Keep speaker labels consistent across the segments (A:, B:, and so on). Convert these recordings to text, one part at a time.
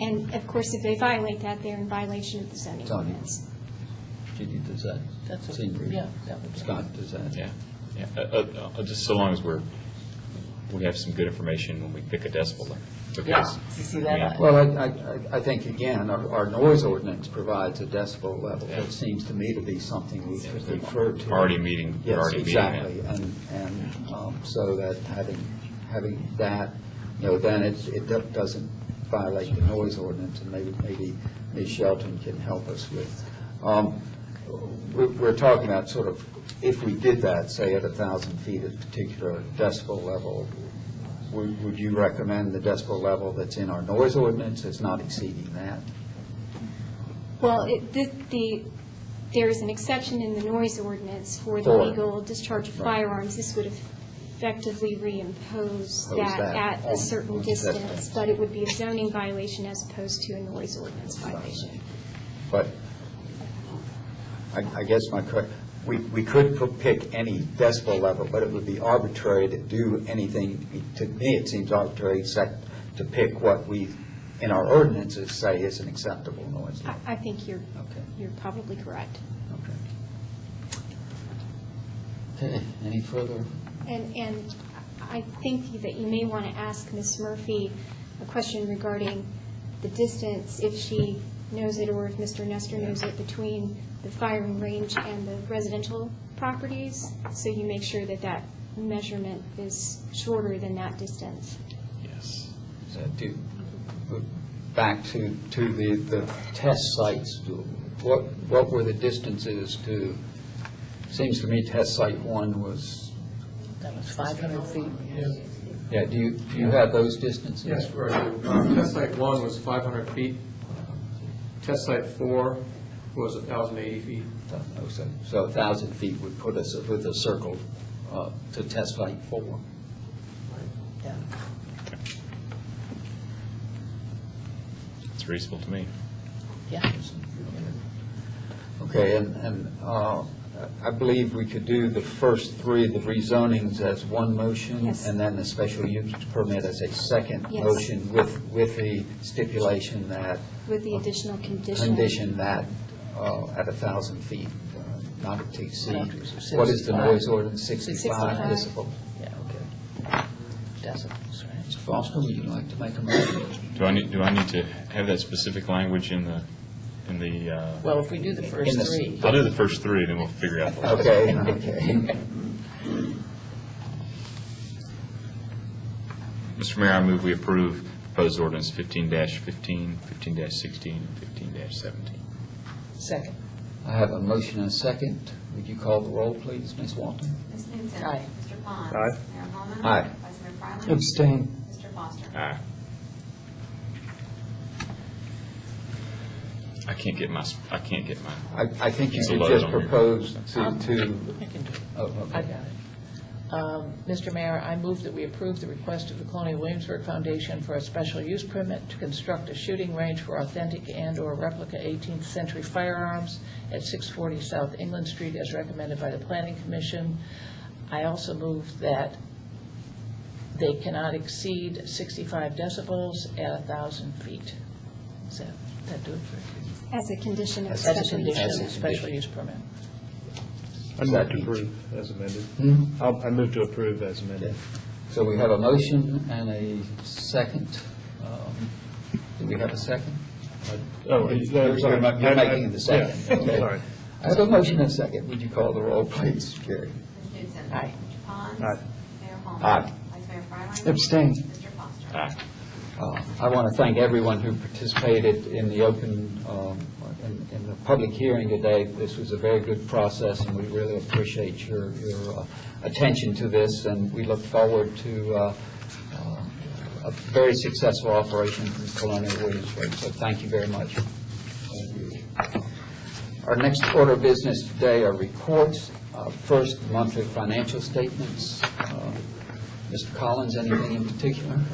A: And of course, if they violate that, they're in violation of the zoning
B: Zoning.
A: ordinance.
B: Judy, does that
C: That's what-
B: seem?
C: yeah, that would be-
B: Scott, does that?
D: Yeah, yeah, Uh, uh, uh, just so long as we're, we have some good information when we pick a decibel. limit, because-
C: You see that?
B: Well, I, I- I, I think, again, our, our noise ordinance provides a decibel level.
D: Yeah.
B: That seems to me to be something we should
D: Yeah.
B: refer to.
D: Already meeting, we're
B: Yes,
D: already meeting that.
B: exactly, and, and um, so that having, having that, you know, then it, it do- doesn't violate the noise ordinance, and maybe, maybe Ms. Shelton can help us with. Um, We're, we're talking about sort of, if we did that, say at a thousand feet at a particular decibel level, would, would you recommend the decibel level that's in our noise ordinance is not exceeding that?
A: Well, it- the- the, there is an exception in the noise ordinance for the
B: For-
A: legal discharge of
B: Right.
A: firearms. This would effectively reimpose
B: Impose
A: that
B: that
A: at
B: on-
A: a certain
B: on the
A: distance,
B: setbacks.
A: but it would be a zoning violation as opposed to a noise ordinance violation.
B: But I, I guess my, que- we, we could p- pick any decibel level, but it would be arbitrary to do anything, to me, it seems arbitrary, except to pick what we, in our ordinances, say is an acceptable noise level.
A: I, I think you're,
B: Okay.
A: you're probably correct.
B: Okay, any further?
A: And, and I think that you may want to ask Ms. Murphy a question regarding the distance, if she knows it or if Mr. Nestor knows it, between the firing range and the residential properties, so you make sure that that measurement is shorter than that distance.
D: Yes.
B: So do, back to, to the, the test sites, do- what, what were the distances to, seems to me test site one was,
C: That was 500 feet.
B: yeah, do you, do you have those distances?
E: Yes, right. Uh, Test site one was 500 feet. Test site four was 1,080 feet.
B: Don't know, So, so a thousand feet would put us with a circle uh, to test site four.
C: Yeah.
D: It's reasonable to me.
C: Yeah.
B: Okay, and, and uh, I believe we could do the first three, the rezonings as one motion.
A: Yes.
B: And then the special use permit as a second
A: Yes.
B: motion with, with the stipulation that, uh,
A: With the additional condition.
B: condition that uh, at a thousand feet, uh, not to
C: Not
B: exceed.
C: to exceed
B: What is the
C: 65.
B: noise ordinance, sixty-five
C: 65.
B: decibel?
C: Yeah,
B: Okay.
C: Decibels, right?
B: Mr. Foster, would you like to make a motion?
D: Do I need, do I need to have that specific language in the, in the, uh,
C: Well, if we do the first
B: the s-
C: three.
D: I'll do the first three, then we'll figure out the rest.
B: Okay, okay.
D: Mr. Mayor, I move we approve proposed ordinance fifteen 15 15-16, and fifteen seventeen.
C: Second.
B: I have a motion and a second. Would you call the roll, please, Ms. Walton?
F: Ms. Newton.
C: Aye.
F: Mr. Pond.
E: Aye.
F: Mayor Holman.
B: Aye.
F: Vice Mayor Fryland.
G: Abstain.
F: Mr. Foster.
D: Aye. I can't get my, s- I can't get my,
B: I, I think you
D: It's a
B: should
D: load
B: just
D: on your-
B: propose to, to,
C: I can do it.
B: oh,
C: I
B: okay.
C: got it. Um, Mr. Mayor, I move that we approve the request of the Colonial Williamsburg Foundation for a special use permit to construct a shooting range for authentic and/or replica 18th-century firearms at 640 South England Street as recommended by the Planning Commission. I also move that they cannot exceed 65 decibels at 1,000 feet. Is that, that do it?
A: As a condition of
B: As a
C: That's a
A: special use.
C: condition of the
B: condition.
C: special use permit.
G: I move to approve as amended.
B: Hmm?
G: I'll- I move to approve as
B: Okay.
G: amended.
B: So we have a motion and a second. Um, Do we have a second?
G: Oh,
B: You're-
G: is that-
B: you're-
G: sorry.
B: You're
G: I'm-
B: making
G: I'm-
B: the second.
G: yeah,
B: okay.
G: sorry.
B: I have a motion and a second. Would you call the roll, please, Gary?
F: Ms. Newton.
C: Aye.
F: Mr. Pond.
G: Aye.
F: Mayor Holman.
B: Aye.
F: Vice Mayor Fryland.
G: Abstain.
F: Mr. Foster.
D: aye.
B: Uh, I want to thank everyone who participated in the open, um, in in the public hearing today. This was a very good process, and we really appreciate your your uh, attention to this, and we look forward to uh, uh, a very successful operation from Colonial Williamsburg. So thank you very much. Our next order of business today are reports. Uh, First, monthly financial statements. Uh, Mr. Collins, anything in particular?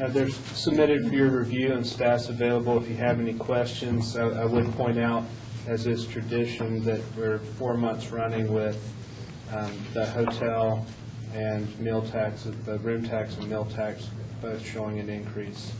G: Uh, They're submitted for your review and staff's available if you have any questions. I I would point out, as is tradition, that we're four months running with um, the hotel and meal tax, the room tax and meal tax both showing an increase.